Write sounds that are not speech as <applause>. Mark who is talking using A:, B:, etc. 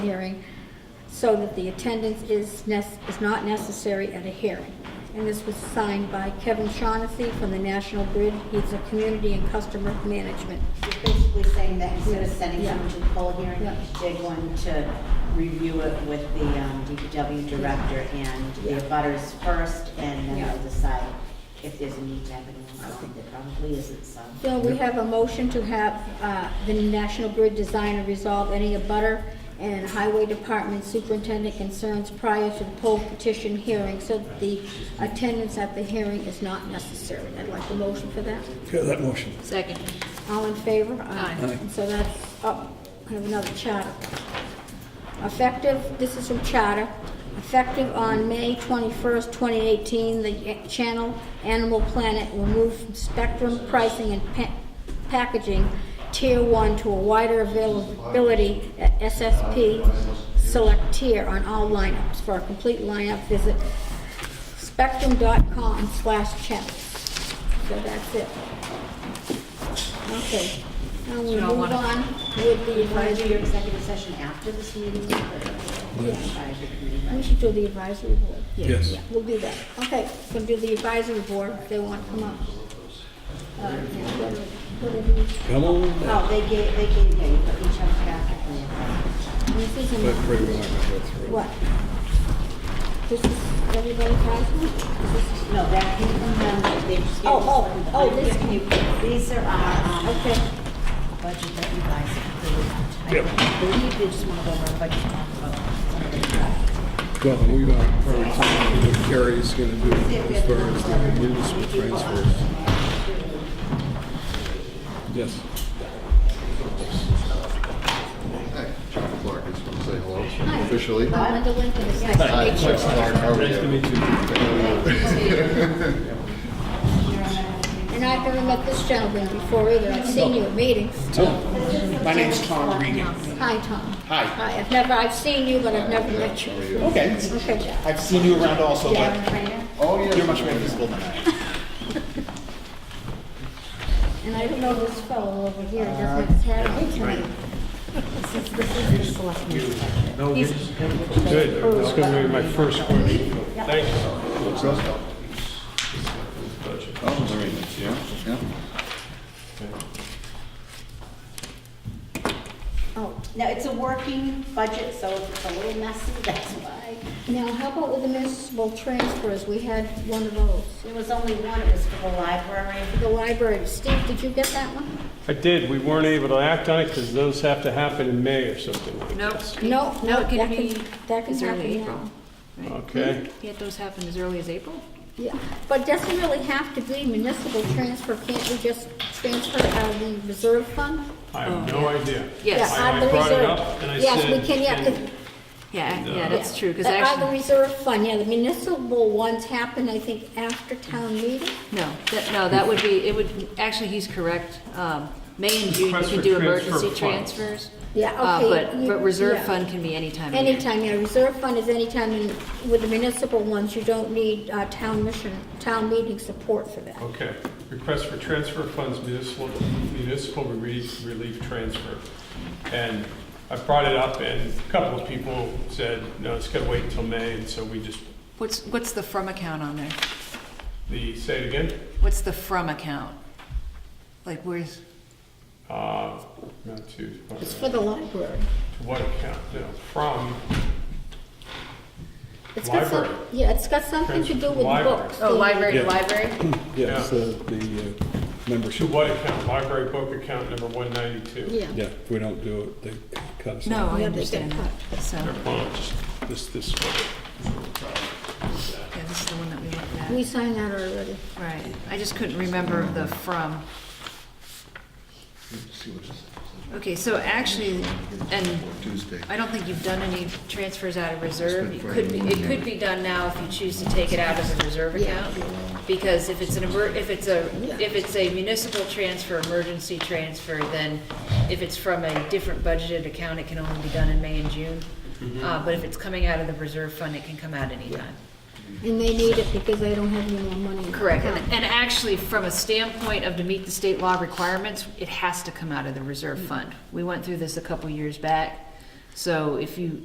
A: hearing so that the attendance is nec- is not necessary at a hearing. And this was signed by Kevin Shaughnessy from the National Grid. He's a community and customer management.
B: It's basically saying that instead of sending
A: Yeah.
B: someone to the poll hearing,
A: Yeah.
B: they're going to review it with the um, DPW director and
A: Yeah.
B: the butters first, and then
A: Yeah.
B: they'll decide if there's a need to have it on. There probably isn't, so.
A: So we have a motion to have uh, the National Grid design and resolve any abutter and highway department superintendent concerns prior to the poll petition hearing so that the attendance at the hearing is not necessary. I'd like a motion for that.
C: Okay, that motion.
D: Second.
A: All in favor?
D: Aye.
C: Aye.
A: And so that's up, I have another charter. Effective, this is from charter, effective on May 21st, 2018, the channel Animal Planet will move from spectrum pricing and pa- packaging tier one to a wider availability at SSP select tier on all lineups. For a complete lineup, visit spectrum.com slash channels. So that's it. Okay, now we
D: So you
A: move
D: don't wanna-
A: on with the
B: You want to do
A: advisory,
B: your executive session after this meeting? or- Advisory committee,
A: we
B: right?
A: should do the advisory board.
C: Yes.
A: Yeah, We'll do that, okay, we'll do the advisory board, if they want to come up. Uh, yeah, what do- what do we-
C: Come on.
B: Oh, they gave, they gave, yeah, you put each other's packet in your
A: This is, in-
C: But pretty well, I'm gonna go through.
A: what? This is everybody's advisory?
B: No, that came from them, that they just gave.
A: Oh,
B: us
A: oh,
B: one.
A: oh,
B: I'm
A: this-
B: giving you- These are our, um,
A: Okay,
B: budget that you guys approved.
C: Yep.
B: I believe they just want to go over a budget talk about some of the stuff.
C: Well, we got, probably talking what Carrie's gonna do as far as the municipal transfers. Yes.
E: Hi, Chuck Clark, just want to say hello
A: Hi.
E: officially.
A: Uh, Linda Lincoln is next.
E: Hi,
A: Make sure.
E: Chuck Clark, how are you?
A: And I've never met this gentleman before either, I've seen you at meetings.
F: My name's Tom Regan.
A: Hi, Tom.
F: Hi.
A: Hi, I've never, I've seen you, but I've never met you.
F: Okay.
A: Okay.
F: I've seen you around also, but
E: Oh, yeah.
F: you're much more visible than I am.
A: And I don't know this fellow over here, doesn't have his hat on tonight.
G: Good, that's gonna be my first question. Thank you.
E: Oh, there he is, yeah, yeah.
A: Oh,
B: Now, it's a working budget, so if it's a little messy, <laughs> that's why.
A: now how about with the municipal transfers? We had one of those.
B: There was only one, it was for the library.
A: The library, Steve, did you get that one?
G: I did, we weren't able to act on it because those have to happen in May or something like
D: Nope.
G: that.
A: No, no,
D: No,
A: that
D: it can
A: can,
D: be
A: that can
D: as early
A: happen now.
D: April. right?
G: Okay,
D: Yet those happen as early as April?
A: Yeah, but doesn't really have to be municipal transfer, can't we just transfer out of the reserve fund?
G: I have no idea.
D: Yes.
A: Yeah, out
G: I
A: of the
G: I brought it
A: reserve.
G: up and I said.
A: Yes, we can, yeah, 'cause-
D: Yeah, yeah, that's
A: Yeah.
D: true, because
A: The- uh,
D: actually,
A: The reserve fund, yeah, the municipal ones happen, I think, after town meeting.
D: no, that, no, that would be, it would, actually, he's correct. Um, May and June, you
G: Request
D: can
G: for
D: do
G: transfer
D: emergency
G: funds.
D: transfers.
A: Yeah,
D: uh,
A: okay,
D: But,
A: you-
D: but reserve
A: yeah.
D: fund can be any time of year.
A: Anytime, yeah, reserve fund is anytime, in- with the municipal ones, you don't need uh, town mission, town meeting support for that.
G: Okay, request for transfer funds municipal, municipal relief, relief transfer. And I brought it up and a couple of people said, no, it's gonna wait until May, and so we just,
D: What's, what's the from account on there?
G: the, say it again?
D: What's the from account? Like, where's,
G: Uh, not to. uh,
A: It's for the library.
G: To what account, no, from,
A: It's got some-
G: Library.
A: Yeah, it's got something to do with
G: Library.
A: books.
D: oh,
A: the-
D: library,
C: Yeah.
D: library?
C: Yes, the, the uh,
G: to
C: membership.
G: what account, library book account number one ninety-two.
A: Yeah.
C: Yeah, if we don't do it, they cut us
D: No,
C: off.
D: I
A: Yeah, they get
D: understand that. So,
C: This, this,
D: yeah, this is the one that we looked at.
A: We signed that already.
D: Right, I just couldn't remember the from. Okay, so actually, and
E: Tuesday.
D: I don't think you've done any transfers out of reserve. You could be, it could be done now if you choose to take it out of the reserve account. Because if it's an emer, if it's a, if it's a municipal transfer, emergency transfer, then if it's from a different budgeted account, it can only be done in May and June. Uh, but if it's coming out of the reserve fund, it can come out anytime.
A: And they need it because they don't have any more money. in the
D: Correct, and,
A: account.
D: and actually, from a standpoint of to meet the state law requirements, it has to come out of the reserve fund. We went through this a couple years back, So if you,